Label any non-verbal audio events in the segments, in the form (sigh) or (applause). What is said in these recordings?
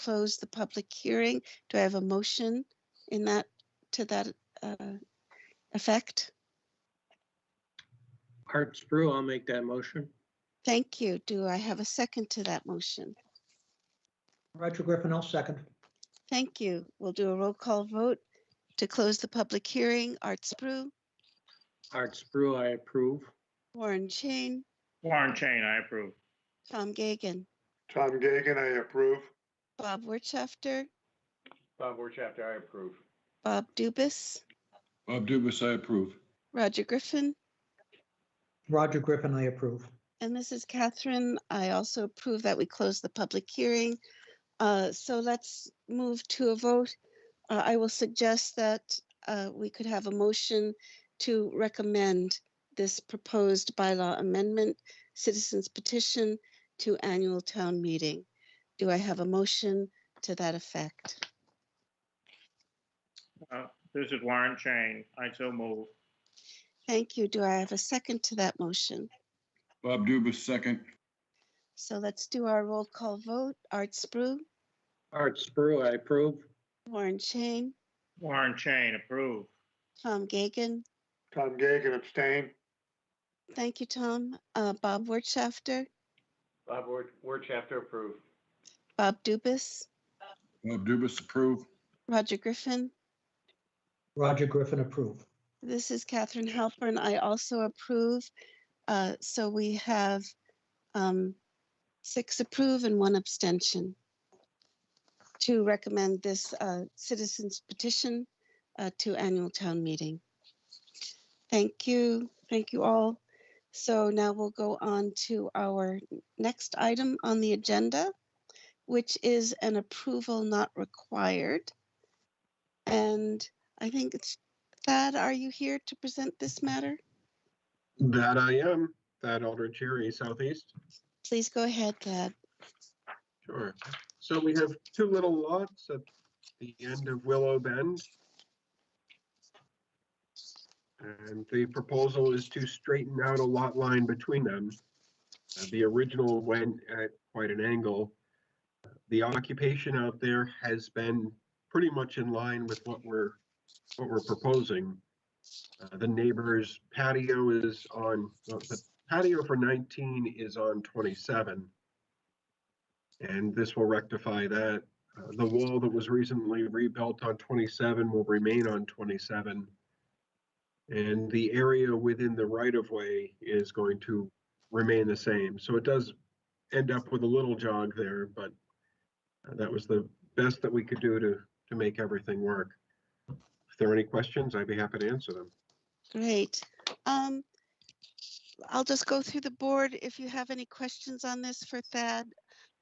close the public hearing. Do I have a motion in that, to that uh, effect? Art Sprue, I'll make that motion. Thank you. Do I have a second to that motion? Roger Griffin, I'll second. Thank you. We'll do a roll call vote to close the public hearing. Art Spru, Art Sprue, I approve. Warren Chain, Warren Chain, I approve. Tom Gagan, Tom Gagan, I approve. Bob Wirtschafter, Bob Wertheimer, I approve. Bob Dubus, Bob Dubus, I approve. Roger Griffin, Roger Griffin, I approve. And this is Catherine. I also approve that we close the public hearing. Uh, So let's move to a vote. Uh, I will suggest that uh, we could have a motion to recommend this proposed bylaw amendment, citizens petition to annual town meeting. Do I have a motion to that effect? Uh, This is Warren Chain. I so move. Thank you. Do I have a second to that motion? Bob Dubus, second. So let's do our roll call vote. Art Spru, Art Sprue, I approve. Warren Chain, Warren Chain, approve. Tom Gagan, Tom Gagan abstain. Thank you, Tom. Uh, Bob Wirtschafter, Bob Wertheimer, approve. Bob Dubus, Bob Dubus, approve. Roger Griffin. Roger Griffin, approve. This is Catherine Halpern. I also approve. Uh, so we have um, six approve and one abstention to recommend this uh, citizens petition uh, to annual town meeting. Thank you. Thank you all. So now we'll go on to our next item on the agenda, which is an approval not required. And I think it's Thad, are you here to present this matter? That I am, that Aldrich Erie Southeast. Please go ahead, Thad. Sure. So we have two little lots at the end of Willow Bend. And the proposal is to straighten out a lot line between them. Uh, The original went at quite an angle. The occupation out there has been pretty much in line with what we're, what we're proposing. Uh, The neighbor's patio is on, well, the patio for 19 is on 27. And this will rectify that. Uh, The wall that was recently rebuilt on 27 will remain on 27. And the area within the right-of-way is going to remain the same. So it does end up with a little jog there, but uh, that was the best that we could do to, to make everything work. If there are any questions, I'd be happy to answer them. Great. Um, I'll just go through the board. If you have any questions on this for Thad,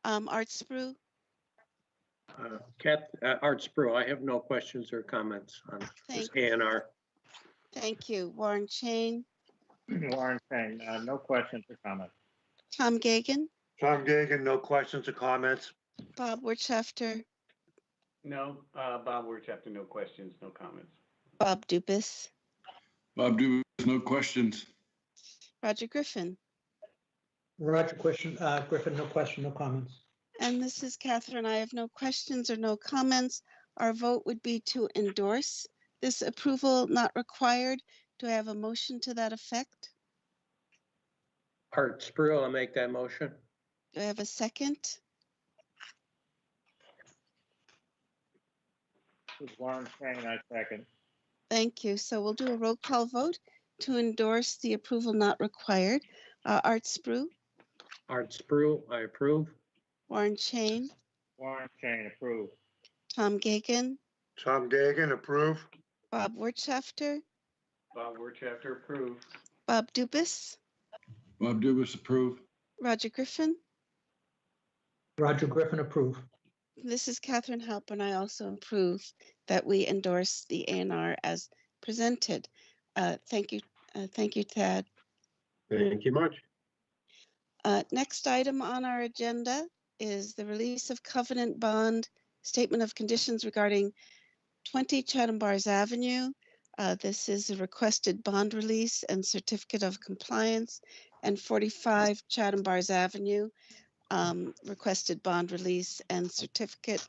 um, Art Spru, Uh, Cat, uh, Art Sprue, I have no questions or comments on this Thank A and R. thank you. Warren Chain, (clears throat) Warren Chain, uh, no questions or comments. Tom Gagan, Tom Gagan, no questions or comments? Bob Wirtschafter, No, uh, Bob Wertheimer, no questions, no comments. Bob Dubus, Bob Dubus, no questions. Roger Griffin. Roger question, uh, Griffin, no question, no comments. And this is Catherine. I have no questions or no comments. Our vote would be to endorse this approval not required. Do I have a motion to that effect? Art Sprue, I'll make that motion. Do I have a second? This is Warren Chain, I second. Thank you. So we'll do a roll call vote to endorse the approval not required. Uh, Art Spru, Art Sprue, I approve. Warren Chain, Warren Chain, approve. Tom Gagan, Tom Gagan, approve. Bob Wirtschafter, Bob Wertheimer, approve. Bob Dubus, Bob Dubus, approve. Roger Griffin. Roger Griffin, approve. This is Catherine Halpern. I also approve that we endorse the A and R as presented. Uh, Thank you, uh, thank you, Tad. Thank you much. Uh, Next item on our agenda is the release of covenant bond statement of conditions regarding 20 Chatham Bars Avenue. Uh, This is a requested bond release and certificate of compliance and 45 Chatham Bars Avenue um, requested bond release and certificate